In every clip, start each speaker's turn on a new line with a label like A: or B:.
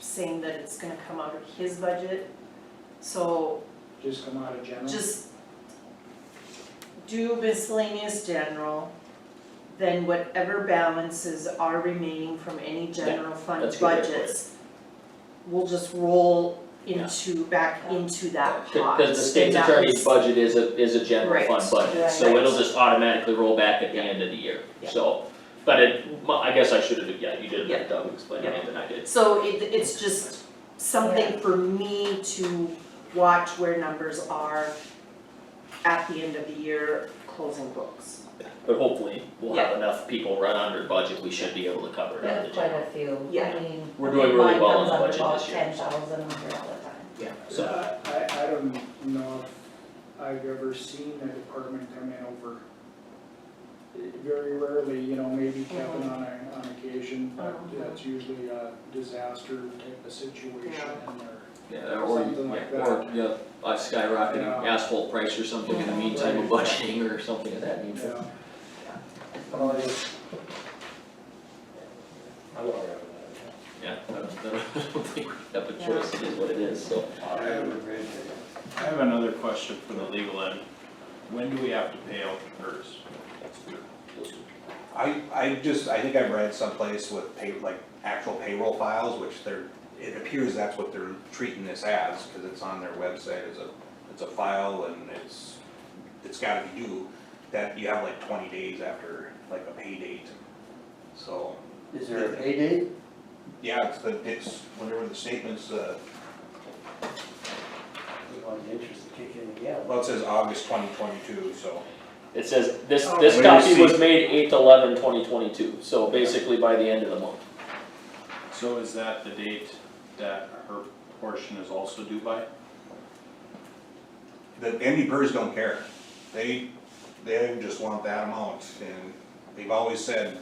A: saying that it's gonna come out of his budget. So
B: Just come out of general?
A: just do miscellaneous general, then whatever balances are remaining from any general fund
C: that's a good way to put it.
A: budgets will just roll
C: Yeah.
A: into, back into that pot.
C: Because the state's
A: And that
C: attorney's
A: was-
C: budget is a, is a general
A: Right,
C: fund budget,
D: right.
C: so it'll just automatically roll back at the end of the year,
A: Yeah.
C: so. But it, well, I guess I should have, yeah, you did a better job explaining
A: Yeah.
C: it than I did.
A: So it, it's just something for me to watch where numbers are at the end of the year, closing books.
C: But hopefully, we'll have enough people run under budget, we should be able to cover it
D: We
C: under the
D: have quite
C: general.
D: a few,
A: Yeah.
D: I mean.
C: We're doing really
D: mine
C: well on
D: comes
C: the
D: up
C: budget
D: about
C: this year.
D: 10,000 under all the time.
C: Yeah,
B: So
C: so,
B: Uh, I, I, I don't know if I've ever seen a department come in over. Very rarely, you know, maybe Kevin on a, on occasion, but
A: Mhm.
B: that's usually a disaster type of situation
A: Yeah.
B: and they're.
C: yeah, or,
B: Something like
C: yeah, or, yeah, a skyrocketing
B: Yeah.
C: asphalt price or something in the
A: Mhm.
C: meantime, of budgeting or something of that nature.
B: Yeah.
E: I'm all right with
C: Yeah, I don't, I don't think we have a choice, it is what it is, so.
E: that. I have a great
F: I have another question for the legal end. When do we have to pay out the PERS?
G: I, I just, I think I've read someplace with pay, like actual payroll files, which they're, it appears that's what they're treating this as, cause it's on their website as a, it's a file and it's, it's gotta be due, that you have like twenty days after like a pay date. So,
E: Is there a pay date?
G: yeah, it's the, it's whenever the statement's, uh,
E: We want the interest to kick in again.
G: well, it says August twenty twenty-two, so.
C: It says, this,
A: Oh.
C: this
G: When
C: copy
G: you
C: was
G: see-
C: made eight eleven twenty twenty-two, so basically by the end of the month.
F: So is that the date that her portion is also due by?
G: The MDPers don't care. They, they just want that amount, and they've always said,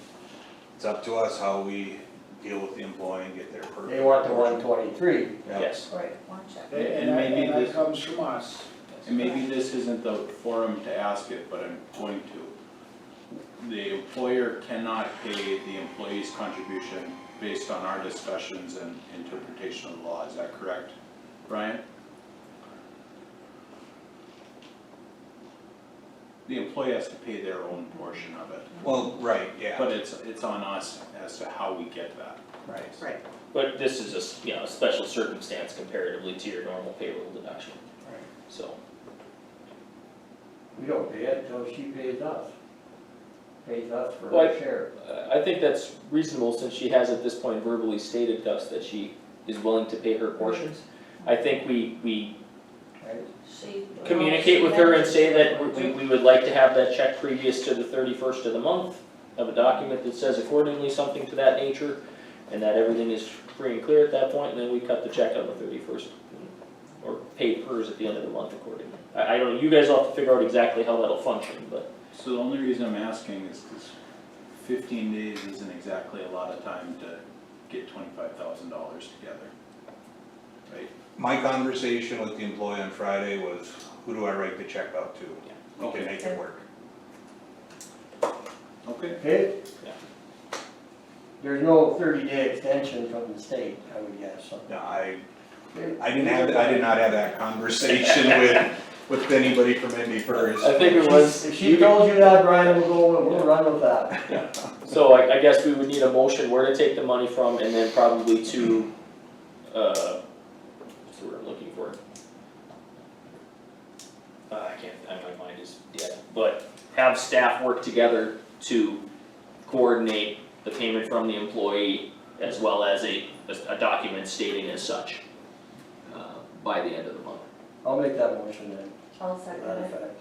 G: it's up to us how we deal with the employee and get their per.
E: They want the one twenty-three.
G: Yeah.
C: Yes.
D: Right, one check.
B: And, and
F: And
B: that,
F: maybe
B: and that
F: this-
B: comes from us.
F: And maybe this isn't the forum to ask it, but I'm going to. The employer cannot pay the employee's contribution based on our discussions and interpretation of the law, is that correct, Brian? The employee has to pay their own portion of it,
G: Well, right, yeah,
F: but it's, it's on us as to how we get that.
G: right.
A: Right.
C: But this is a, s- you know, a special circumstance comparatively to your normal payroll deduction, so.
E: We don't pay it until she pays us. Pays us for
C: Well, I-
E: her share.
C: uh, I think that's reasonable, since she has at this point verbally stated thus that she is willing to pay her portions. I think we, we
E: right?
D: She.
C: communicate with her and say that we, we would like to have that check previous to the thirty-first of the month, have a document that says accordingly, something to that nature, and that everything is free and clear at that point, and then we cut the check on the thirty-first, mm, or pay hers at the end of the month accordingly. I, I don't, you guys all have to figure out exactly how that'll function, but
F: So the only reason I'm asking is because fifteen days isn't exactly a lot of time to get twenty-five thousand dollars together. Right?
G: My conversation with the employee on Friday was, who do I write the check out to? We can
F: Okay.
G: make it work.
F: Okay,
E: Okay?
C: Yeah.
E: There's no thirty-day extension from the state, I would guess, so.
G: No, I, I didn't have, I did not have that conversation with, with anybody from MDPers.
C: I think it was.
E: If she told you that, Brian, we'll go, and we'll run with that.
C: So I, I guess we would need a motion where to take the money from and then probably to, uh, what's the word I'm looking for? Uh, I can't, I, my mind is dead, but have staff work together to coordinate the payment from the employee as well as a, a document stating as such, uh, by the end of the month.
E: I'll make that motion then,
D: I'll
E: to
D: second
E: that
D: it.
E: effect.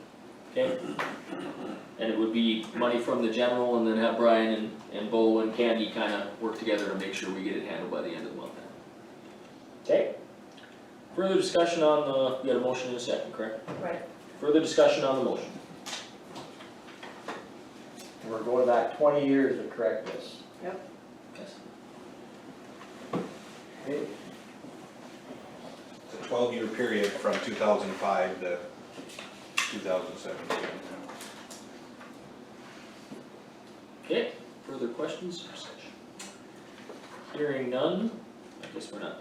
C: Okay. And it would be money from the general and then have Brian and, and Bo and Candy kinda work together to make sure we get it handled by the end of the month then. Okay. Further discussion on the, you had a motion in a second, correct?
D: Right.
C: Further discussion on the motion.
E: We're going back twenty years to correct this.
C: Yes.
E: Okay?
G: It's a twelve-year period from two thousand five to two thousand seventeen.
C: Okay, further questions or discussion? Hearing none, I guess we're not